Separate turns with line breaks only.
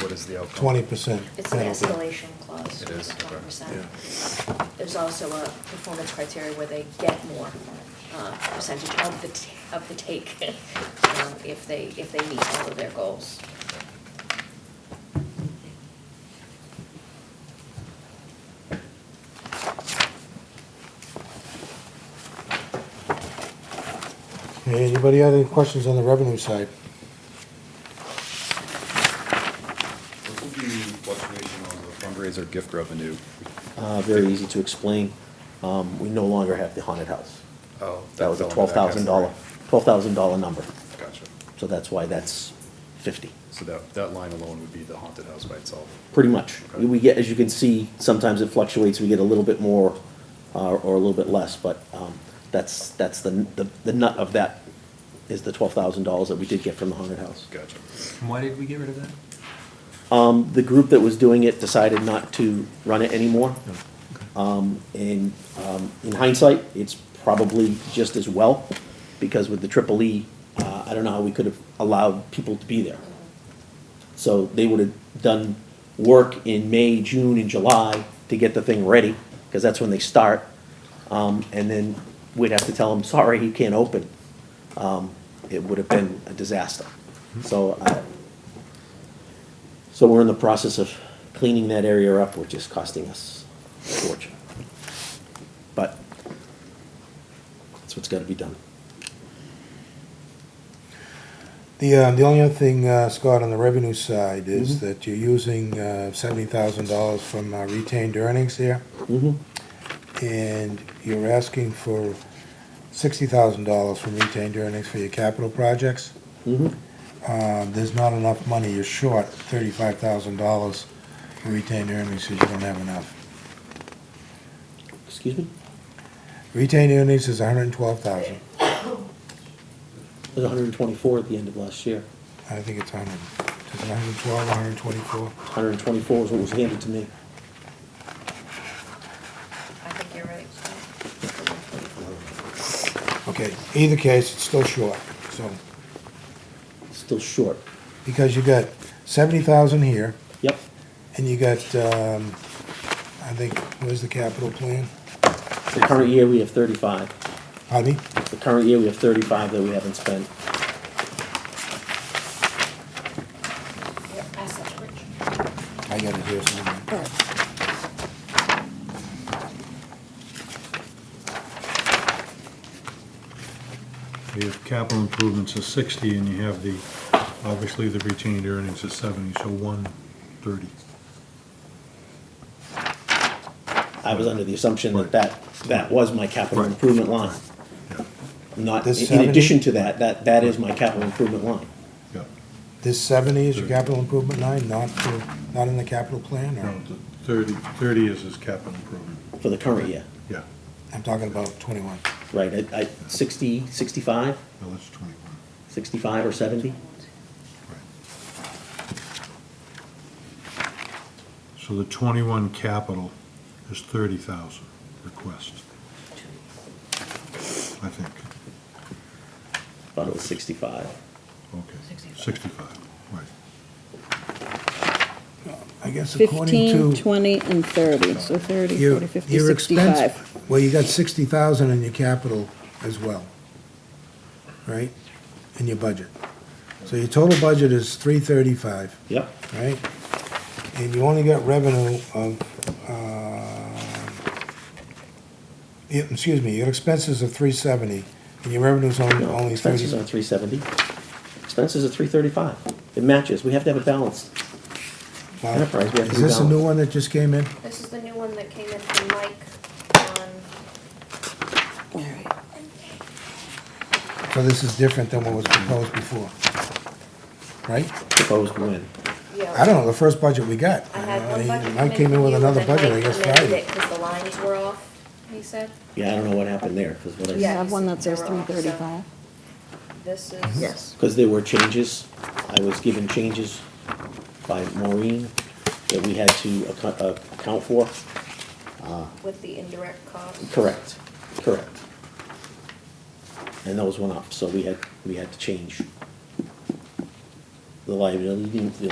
what is the outcome?
twenty percent.
It's an escalation clause.
It is, okay.
Twenty percent.
Yeah.
There's also a performance criteria where they get more uh, percentage of the, t- of the take um, if they, if they meet all of their goals.
Hey, Anybody have any questions on the revenue side?
What would be fluctuation on the fundraiser gift revenue?
Uh, very easy to explain. Um, we no longer have the haunted house.
Oh,
That was a
fell
twelve
into that
thousand dollar, twelve thousand dollar number.
category. Gotcha.
So that's why that's fifty,
So that, that line alone would be the haunted house by itself.
pretty much.
Okay.
We get, as you can see, sometimes it fluctuates. We get a little bit more, uh, or a little bit less, but, um, that's, that's the, the, the nut of that is the twelve thousand dollars that we did get from the haunted house.
Gotcha.
Why did we get rid of that?
Um, the group that was doing it decided not to run it anymore. Um, and, um, in hindsight, it's probably just as well, because with the triple E, uh, I don't know how we could have allowed people to be there. So they would have done work in May, June, and July to get the thing ready, because that's when they start. Um, and then we'd have to tell them, sorry, you can't open. Um, it would have been a disaster. So, uh, I, so we're in the process of cleaning that area up, which is costing us a fortune. But that's what's gotta be done.
The, uh, the only other thing, uh, Scott, on the revenue side is that you're using, uh, seventy thousand dollars from uh, retained earnings here.
Mm-hmm.
And you're asking for sixty thousand dollars from retained earnings for your capital projects.
Mm-hmm.
Uh, there's not enough money, you're short thirty-five thousand dollars for retained earnings, because you don't have enough.
Excuse me?
Retained earnings is hundred and twelve thousand,
It was hundred and twenty-four at the end of last year.
I think it's hundred, is it hundred and twelve, hundred and twenty-four?
Hundred and twenty-four is what was handed to me.
I think you're
Okay,
right.
either case, it's still short, so,
Still short.
because you got seventy thousand here,
Yep.
and you got, um, I think, where's the capital plan?
The current year, we have thirty-five.
Hobby?
The current year, we have thirty-five that we haven't spent.
Yeah, pass that to Rich.
I got it here somewhere.
You have capital improvements of sixty, and you have the, obviously, the retained earnings of seventy, so one thirty.
I was under the assumption that
Right.
that, that was my capital
Right.
improvement line.
Yeah,
Not,
This
in
70?
addition to that, that, that is my capital improvement line.
yeah.
This seventy is your capital improvement line, not the, not in the capital plan, or,
No, the thirty, thirty is his capital improvement,
for the current year,
yeah.
I'm talking about twenty-one.
right? I, I, sixty, sixty-five,
No, that's twenty-one,
sixty-five or seventy?
right. So the twenty-one capital is thirty thousand request. I think,
Thought it was sixty-five.
okay, sixty-five, right.
I guess according
15,
to
20, and 30, so 30,
your,
40, 50,
your expense,
65.
well, you got sixty thousand in your capital as well, right? In your budget. So your total budget is three thirty-five.
Yep,
right? And you only got revenue of, uh, yeah, excuse me, your expenses are three seventy, and your revenue's only,
no,
only
expenses are
thirty.
three seventy, expenses are three thirty-five. It matches, we have to have it balanced.
Wow.
enterprise, we have to
Is this a
rebalance.
new one that just came in?
This is the new one that came in from Mike on,
So this is different than what was proposed before, right?
Proposed when?
yeah.
I don't know, the first budget we got.
I had
I
one
mean,
budget come
Mike
in
came in
from
with
you,
another
and then
budget, I
Mike
guess,
amended
Friday.
it 'cause the lines were off, he said.
Yeah, I don't know what happened there, because what
We
I,
Yeah.
have one that says
They're all
335.
This is.
because there were changes, I was given changes by Maureen that we had to account, uh, account for.
With the indirect cost.
Correct, correct. And those went up, so we had, we had to change the liability, the